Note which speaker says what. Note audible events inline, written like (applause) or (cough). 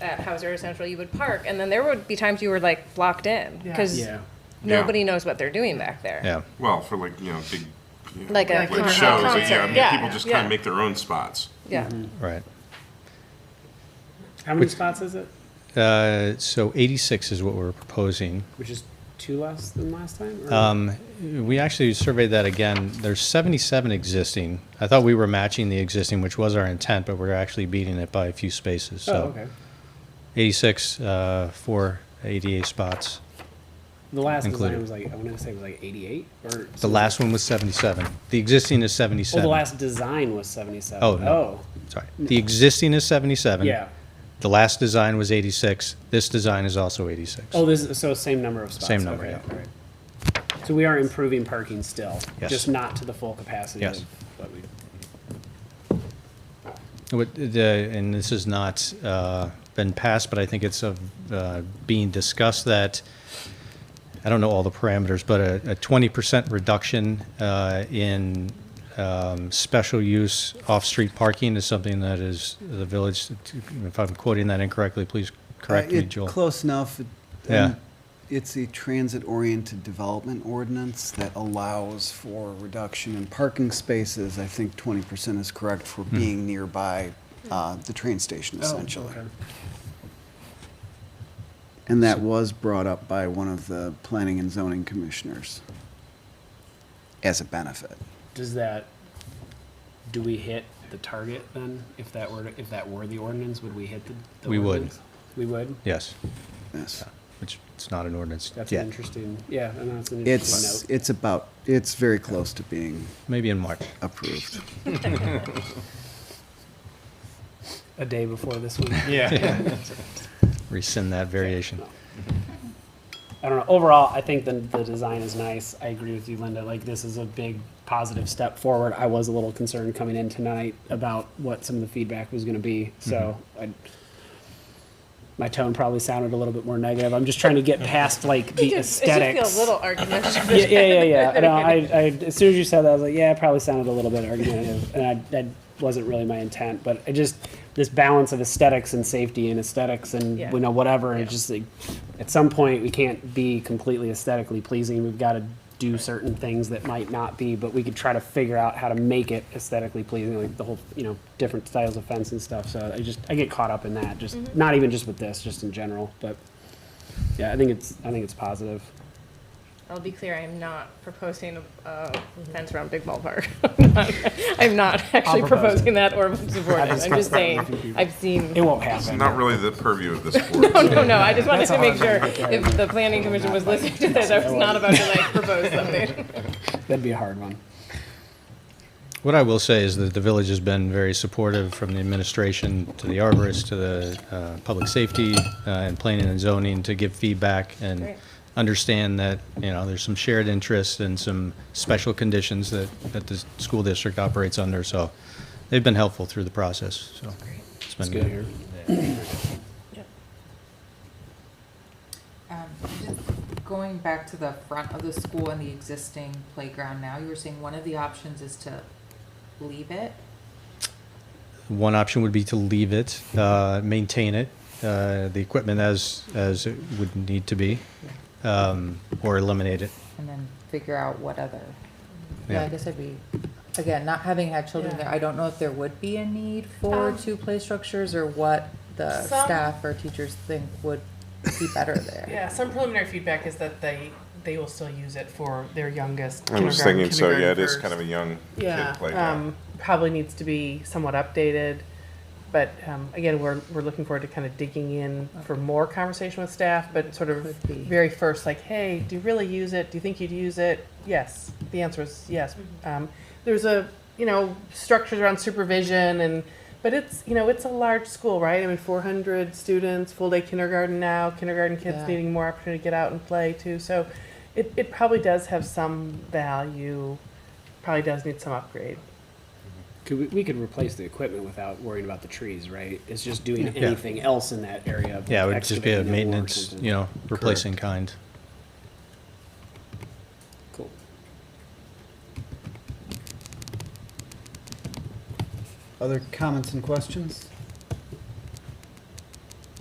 Speaker 1: at Hauser or Central, you would park, and then there would be times you were like blocked in
Speaker 2: Yeah.
Speaker 1: because
Speaker 3: Yeah.
Speaker 1: nobody knows what they're doing back there.
Speaker 4: Yeah.
Speaker 5: Well, for like, you know, big, you know,
Speaker 1: Like a
Speaker 5: like
Speaker 1: concert,
Speaker 5: shows, like, yeah, I
Speaker 1: concert,
Speaker 5: mean,
Speaker 1: yeah,
Speaker 5: people just
Speaker 1: yeah.
Speaker 5: kind of make their own spots.
Speaker 1: Yeah.
Speaker 3: Mm-hmm.
Speaker 4: Right.
Speaker 3: How many spots is it?
Speaker 4: Uh, so 86 is what we're proposing.
Speaker 3: Which is two less than last time? or-
Speaker 4: Um, we actually surveyed that again. There's 77 existing. I thought we were matching the existing, which was our intent, but we're actually beating it by a few spaces.
Speaker 3: Oh,
Speaker 4: So
Speaker 3: okay.
Speaker 4: 86 uh, for 88 spots.
Speaker 3: The last
Speaker 4: Included.
Speaker 3: design was like, I want to say it was like 88 or.
Speaker 4: The
Speaker 3: something.
Speaker 4: last one was 77. The existing is
Speaker 3: Oh,
Speaker 4: 77.
Speaker 3: the last design was 77.
Speaker 4: Oh, no. Sorry. The existing is 77.
Speaker 3: Yeah.
Speaker 4: The last design was 86. This design is also 86.
Speaker 3: Oh, this is, so same number of spots.
Speaker 4: Same number,
Speaker 3: okay,
Speaker 4: yeah.
Speaker 3: alright. So we are improving parking still,
Speaker 4: Yes.
Speaker 3: just not to the full capacity
Speaker 4: Yes.
Speaker 3: of what we.
Speaker 4: What the, and this has not uh, been passed, but I think it's of, uh, being discussed that, I don't know all the parameters, but a a 20% reduction uh, in um, special use off-street parking is something that is the village, if I'm quoting that incorrectly, please correct
Speaker 6: Uh,
Speaker 4: me,
Speaker 6: it-
Speaker 4: Joel.
Speaker 6: Close enough. It-
Speaker 4: Yeah.
Speaker 6: um, It's a transit-oriented development ordinance that allows for reduction in parking spaces. I think twenty percent is correct for
Speaker 4: Hmm.
Speaker 6: being nearby uh, the train station essentially. And that was brought up by one of the planning and zoning commissioners as a benefit.
Speaker 3: Does that, do we hit the target then? If that were, if that were the ordinance, would we hit the? the
Speaker 4: We would.
Speaker 3: ordinance? We would?
Speaker 4: Yes,
Speaker 6: Yes.
Speaker 4: which it's not an ordinance
Speaker 3: That's an
Speaker 4: yet,
Speaker 3: interesting, yeah, and that's an
Speaker 6: It's,
Speaker 3: interesting note.
Speaker 6: it's about, it's very close to being
Speaker 4: maybe in March.
Speaker 6: approved.
Speaker 3: A day before this week.
Speaker 2: Yeah.
Speaker 4: Rescind that variation.
Speaker 3: I don't know. Overall, I think the, the design is nice. I agree with you, Linda. Like, this is a big positive step forward. I was a little concerned coming in tonight about what some of the feedback was going to be. So I, my tone probably sounded a little bit more negative. I'm just trying to get past like
Speaker 1: It
Speaker 3: the
Speaker 1: just, it just
Speaker 3: aesthetics.
Speaker 1: feels a little argumentative. (laughs)
Speaker 3: yeah, yeah, yeah, yeah. No, I, I, as soon as you said that, I was like, yeah, it probably sounded a little bit argumentative, and I, that wasn't really my intent. But I just this balance of aesthetics and safety and aesthetics and
Speaker 1: Yeah.
Speaker 3: you know whatever. It's just like at some point we can't be completely aesthetically pleasing. We've got to do certain things that might not be, but we could try to figure out how to make it aesthetically pleasing, like the whole you know different styles of fence and stuff. So I just I get caught up in that, just
Speaker 1: Mm-hmm.
Speaker 3: not even just with this, just in general, but. Yeah, I think it's I think it's positive.
Speaker 1: I'll be clear, I am not proposing a, a fence around Big Ball Park. (laughs) I'm not actually
Speaker 3: propose it.
Speaker 1: proposing that or supporting it. I'm just saying, I've seen.
Speaker 3: It won't happen.
Speaker 5: Not really the purview of this
Speaker 1: (laughs)
Speaker 5: board.
Speaker 1: No, no, no, I just wanted to make sure if the planning commission was listening to this, I was not about to like propose something.
Speaker 3: (laughs) That'd be a hard one.
Speaker 4: What I will say is that the village has been very supportive from the administration to the arborist to the uh, public safety uh, and planning and zoning to give feedback and
Speaker 1: Great.
Speaker 4: understand that, you know, there's some shared interests and some special conditions that, that the school district operates under. So they've been helpful through the process, so. It's
Speaker 3: It's
Speaker 4: been
Speaker 3: good here.
Speaker 7: Um, just Going back to the front of the school and the existing playground now, you were saying one of the options is to leave it?
Speaker 4: One option would be to leave it, uh, maintain it, uh, the equipment as, as it would need to be, um, or eliminate it.
Speaker 7: and then figure out what other.
Speaker 4: Yeah.
Speaker 7: Yeah, I guess I'd be, again, not having had children there, I don't know if there would be a need for
Speaker 1: Um,
Speaker 7: two play structures or what the
Speaker 8: Some-
Speaker 7: staff or teachers think would be better (laughs) there.
Speaker 8: Yeah, some preliminary feedback is that they, they will still use it for their youngest.
Speaker 5: I was
Speaker 8: kindergarten,
Speaker 5: thinking, so yeah, it is
Speaker 8: kindergarten
Speaker 5: kind of a young
Speaker 8: first.
Speaker 5: kid
Speaker 8: Yeah,
Speaker 5: playground.
Speaker 8: um, probably needs to be somewhat updated, but, um, again, we're, we're looking forward to kind of digging in for more conversation with staff, but sort of
Speaker 7: Could be.
Speaker 8: very first, like, hey, do you really use it? Do you think you'd use it? Yes, the answer is yes. Um, there's a, you know, structures around supervision and, but it's, you know, it's a large school, right? I mean, four hundred students, full day kindergarten now, kindergarten kids
Speaker 7: Yeah.
Speaker 8: needing more opportunity to get out and play too, so it, it probably does have some value, probably does need some upgrade.
Speaker 3: Could we, we could replace the equipment without worrying about the trees, right? It's just doing anything else in that area.
Speaker 4: Yeah, it would just be a
Speaker 3: excavating them or
Speaker 4: maintenance,
Speaker 3: something.
Speaker 4: you know, replacing kind.
Speaker 3: Cool.
Speaker 6: Other comments and questions?